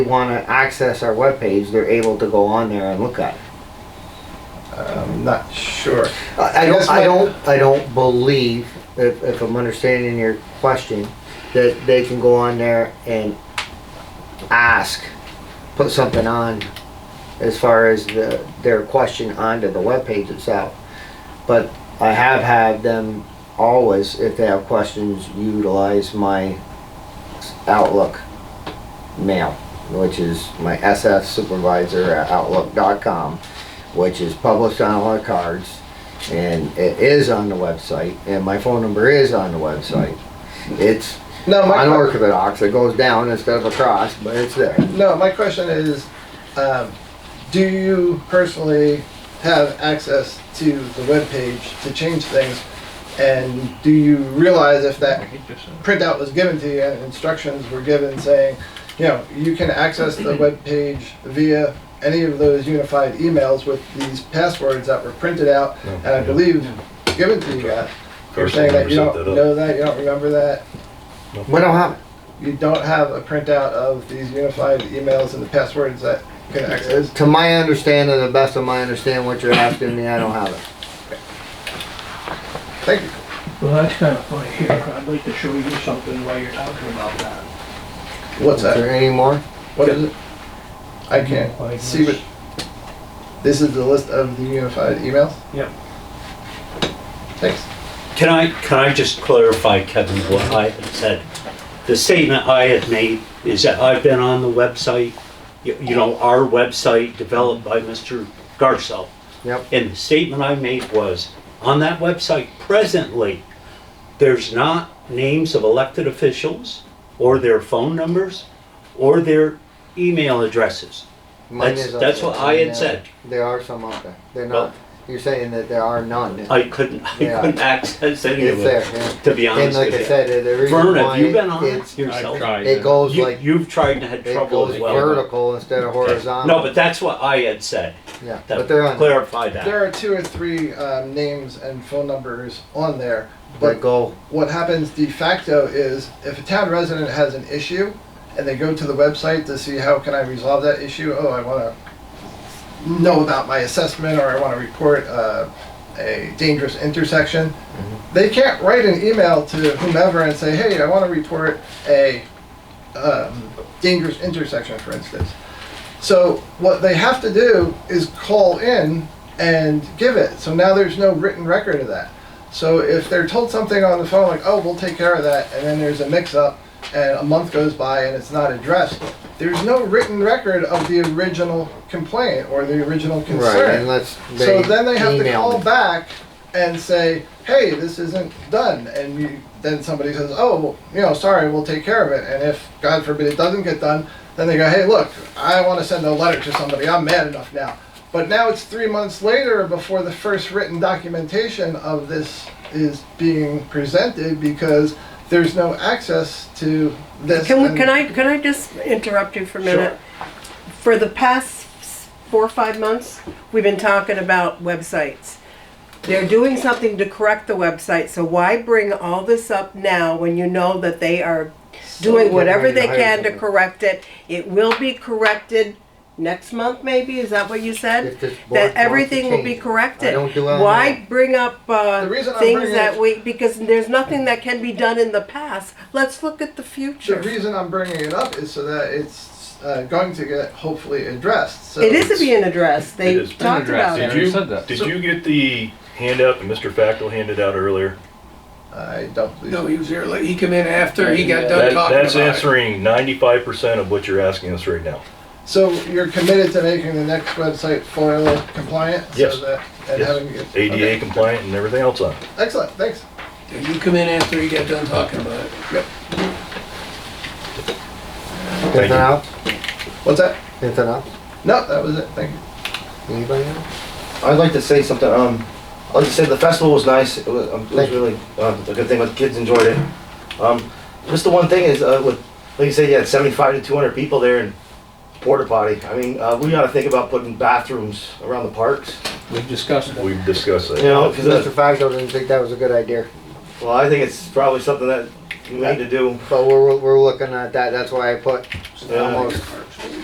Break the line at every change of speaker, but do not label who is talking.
want to access our webpage, they're able to go on there and look at it.
I'm not sure.
I I don't,
Yes,
I
ma'am.
don't, I don't believe, if, if I'm understanding your question, that they can go on there and ask, put something on as far as the, their question onto the webpage itself. But I have had them always, if they have questions, utilize my Outlook mail, which is my SF supervisor at outlook.com, which is published on all our cards. And it is on the website, and my phone number is on the website. It's
No, my,
on Orthodox, it goes down instead of across, but it's there.
no, my question is, um, do you personally have access to the webpage to change things? And do you realize if that printout was given to you and instructions were given saying, you know, you can access the webpage via any of those unified emails with these passwords that were printed out and I believe given to you guys. You're saying that you don't know that, you don't remember that,
We don't have,
you don't have a printout of these unified emails and the passwords that you can access.
to my understanding, the best of my understanding, what you're asking me, I don't have it.
Thank you.
Well, that's kind of funny here. I'd like to show you something while you're talking about that.
What's
Is
that?
there any more?
What is it? I can't see what, this is the list of the unified emails?
Yep.
Thanks.
Can I, can I just clarify, Kevin, what I had said? The statement I had made is that I've been on the website, you you know, our website developed by Mr. Garcelle.
Yep.
And the statement I made was, on that website presently, there's not names of elected officials or their phone numbers or their email addresses.
Mine
That's-
is up
that's
there.
what I had said.
There are some out there. They're
Well-
not, you're saying that there are none.
I couldn't, I
Yeah.
couldn't access any of
It's
it,
there, yeah.
to be
And
honest
like
with
I
you.
said, the- the reason
Vern,
why
have you been on
it's,
it yourself?
I've tried.
it goes
You,
like,
you've tried and had
it
trouble
goes
as well.
vertical instead of
Okay.
horizontal.
No, but that's what I had said.
Yeah,
That-
but they're on, there.
Clarify
There
that.
are two or three um, names and phone numbers on there,
but
but
go,
what happens de facto is if a town resident has an issue and they go to the website to see how can I resolve that issue, oh, I want to know about my assessment or I want to report uh, a dangerous intersection, they can't write an email to whomever and say, hey, I want to report a um, dangerous intersection, for instance. So what they have to do is call in and give it. So now there's no written record of that. So if they're told something on the phone like, oh, we'll take care of that, and then there's a mix-up, and a month goes by and it's not addressed, there's no written record of the original complaint or the original
right,
concern.
unless they
So then they have to
email
call
me.
back and say, hey, this isn't done. And you, then somebody says, oh, well, you know, sorry, we'll take care of it. And if, God forbid, it doesn't get done, then they go, hey, look, I want to send a letter to somebody. I'm mad enough now. But now it's three months later before the first written documentation of this is being presented because there's no access to this.
Can
and-
we, can I, can I just interrupt you for a minute? For the past s- four or five months, we've been talking about websites. They're doing something to correct the website, so why bring all this up now when you know that they are doing
get
whatever
ready to
they
hire
can to
somebody.
correct it? It will be corrected next month, maybe, is that what you
If this
said?
board wants
That
to
everything will be
change it.
corrected.
I don't do it on
Why bring up, uh,
The reason I'm
things
bringing
that
it-
we, because there's nothing that can be done in the past. Let's look at the future.
The reason I'm bringing it up is so that it's uh, going to get hopefully addressed. So
It is being addressed. They
It is being
talked about
Did
addressed.
it.
you,
already said that.
did
So-
you get the handout that Mr. Facto handed out earlier?
I don't believe
No, he was there, late. he came in after he got done
That-
talking
that's
about it.
answering 95% of what you're asking us right now.
So you're committed to making the next website FOIL compliant?
Yes.
So that, and
Yes.
having it-
ADA
okay.
compliant and everything else on. it.
Excellent, thanks.
You come in after he got done talking about it.
Anything
you.
else?
What's that?
Anything else?
No, that was it, thank you.
Anybody else?
I'd like to say something. Um, I'd like to say the festival was nice. It was, um, it was
Thank you.
really um, a good thing. The kids enjoyed it. Um, just the one thing is, uh, with like you said, you had 75 to 200 people there and porta potty. I mean, uh, we got to think about putting bathrooms around the parks.
We've discussed it.
We've discussed
You
that.
know,
Mr.
because
Facto didn't think that was a good idea.
well, I think it's probably something that we need to do.
But we're, we're looking at that, that's why I put
uh,
almost